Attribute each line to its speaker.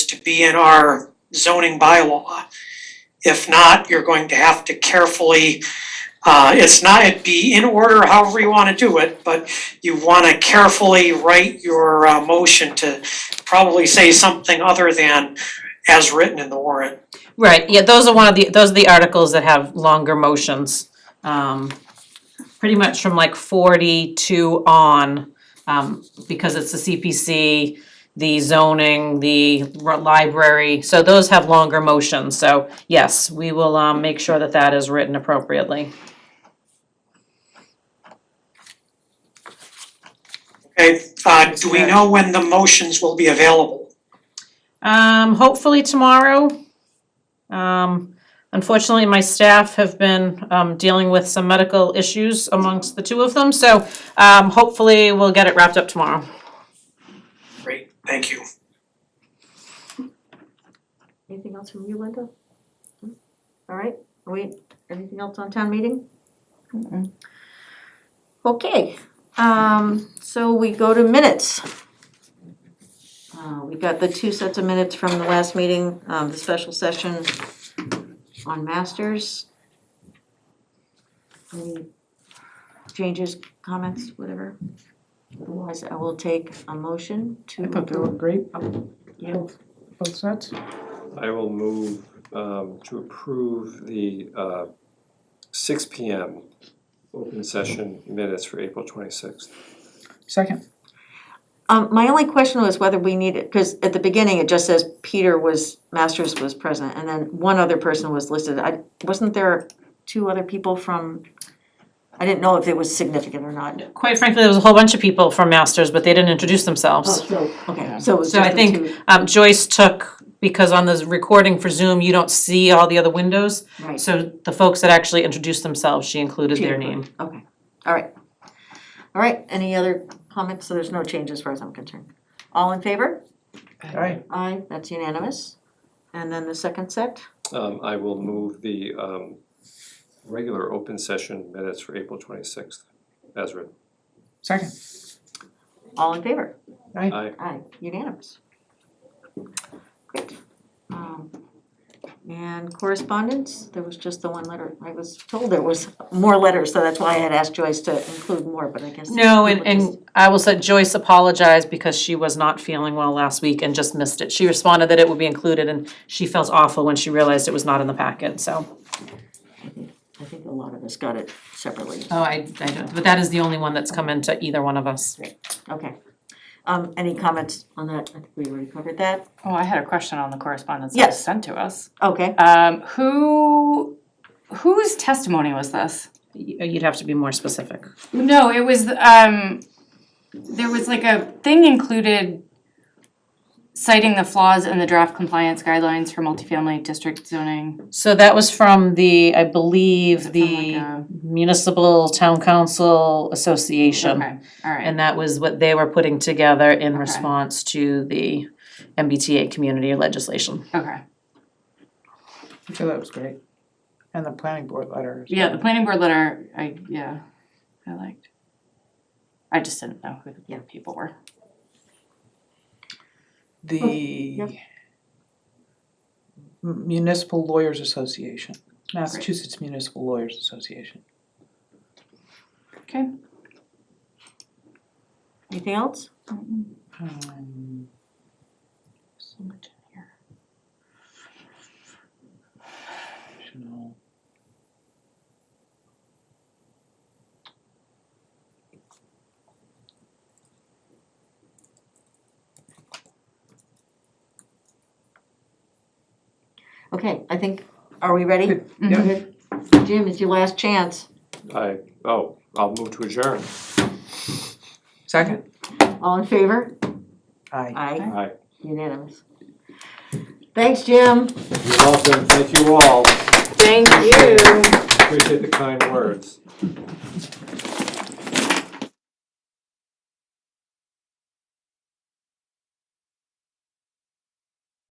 Speaker 1: to be in our zoning bylaw. If not, you're going to have to carefully, uh, it's not, it'd be in order however you wanna do it, but you wanna carefully write your, uh, motion to probably say something other than as written in the warrant.
Speaker 2: Right, yeah, those are one of the, those are the articles that have longer motions. Um, pretty much from like forty-two on, um, because it's the CPC, the zoning, the r- library, so those have longer motions, so yes, we will, um, make sure that that is written appropriately.
Speaker 1: Okay, uh, do we know when the motions will be available?
Speaker 2: Um, hopefully tomorrow. Um, unfortunately, my staff have been, um, dealing with some medical issues amongst the two of them, so, um, hopefully we'll get it wrapped up tomorrow.
Speaker 1: Great, thank you.
Speaker 3: Anything else from you, Linda? No? All right, are we, anything else on town meeting? Okay, um, so we go to minutes. Uh, we got the two sets of minutes from the last meeting, um, the special session on masters. Any changes, comments, whatever? Otherwise, I will take a motion to.
Speaker 4: I thought they were great,
Speaker 3: Yeah.
Speaker 4: both, both sets.
Speaker 5: I will move um to approve the uh six P M open session minutes for April twenty-sixth.
Speaker 4: Second,
Speaker 3: Um, my only question was whether we needed, because at the beginning it just says Peter was, Masters was present, and then one other person was listed. I, wasn't there two other people from, I didn't know if it was significant or not.
Speaker 2: Quite frankly, there was a whole bunch of people from Masters, but they didn't introduce
Speaker 3: Oh,
Speaker 2: themselves.
Speaker 3: so, okay, so it was
Speaker 2: So I
Speaker 3: just the
Speaker 2: think
Speaker 3: two,
Speaker 2: um Joyce took, because on the recording for Zoom, you don't see all the other windows.
Speaker 3: right,
Speaker 2: So the folks that actually introduced themselves, she included their
Speaker 3: She
Speaker 2: name.
Speaker 3: okay, all right. All right, any other comments? So there's no change as far as I'm concerned. All in favor?
Speaker 4: aye,
Speaker 3: Aye, that's unanimous. And then the second set?
Speaker 5: Um I will move the um regular open session minutes for April twenty-sixth as written.
Speaker 4: second,
Speaker 3: All in favor?
Speaker 4: aye,
Speaker 5: I
Speaker 3: Aye, unanimous. Great. Um, And correspondence, there was just the one letter. I was told there was more letters, so that's why I had asked Joyce to include more, but I guess.
Speaker 2: No, and
Speaker 3: people just-
Speaker 2: and I will say Joyce apologized because she was not feeling well last week and just missed it. She responded that it would be included and she felt awful when she realized it was not in the packet, so.
Speaker 3: I think a lot of us got it separately.
Speaker 2: Oh, I I don't, but that is the only one that's come into either one of us.
Speaker 3: Okay. Um, Any comments on that? I think we already covered that.
Speaker 6: Oh, I had a question on the correspondence that was
Speaker 3: Yes.
Speaker 6: sent to us.
Speaker 3: Okay,
Speaker 6: Um, who, whose testimony was this?
Speaker 2: Y- You'd have to be more specific.
Speaker 6: No, it was, um, there was like a thing included citing the flaws in the draft compliance guidelines for multifamily district zoning.
Speaker 2: So that was from the, I believe,
Speaker 6: Something like
Speaker 2: the
Speaker 6: a-
Speaker 2: Municipal Town Council Association.
Speaker 6: Okay, all right.
Speaker 2: And that was what they were putting together in
Speaker 6: Okay.
Speaker 2: response to the MBTA community legislation.
Speaker 6: Okay.
Speaker 4: I thought that was great. And the planning board letter. is-
Speaker 6: Yeah, the planning board letter, I, yeah, I liked. I just didn't know who the people were.
Speaker 4: The Municipal Lawyers Association, Massachusetts Municipal Lawyers Association.
Speaker 6: Okay.
Speaker 3: anything else?
Speaker 4: Um,
Speaker 6: So much in here.
Speaker 4: no.
Speaker 3: Okay, I think, are we ready?
Speaker 4: Good. Yeah.
Speaker 3: Good. Jim, it's your last chance.
Speaker 5: I, oh, I'll move to adjourn.
Speaker 4: Second,
Speaker 3: All in favor?
Speaker 4: aye.
Speaker 3: Aye,
Speaker 5: Aye.
Speaker 3: unanimous. Thanks, Jim.
Speaker 5: You're welcome, thank you all,
Speaker 3: Thank you.
Speaker 5: appreciate the kind words.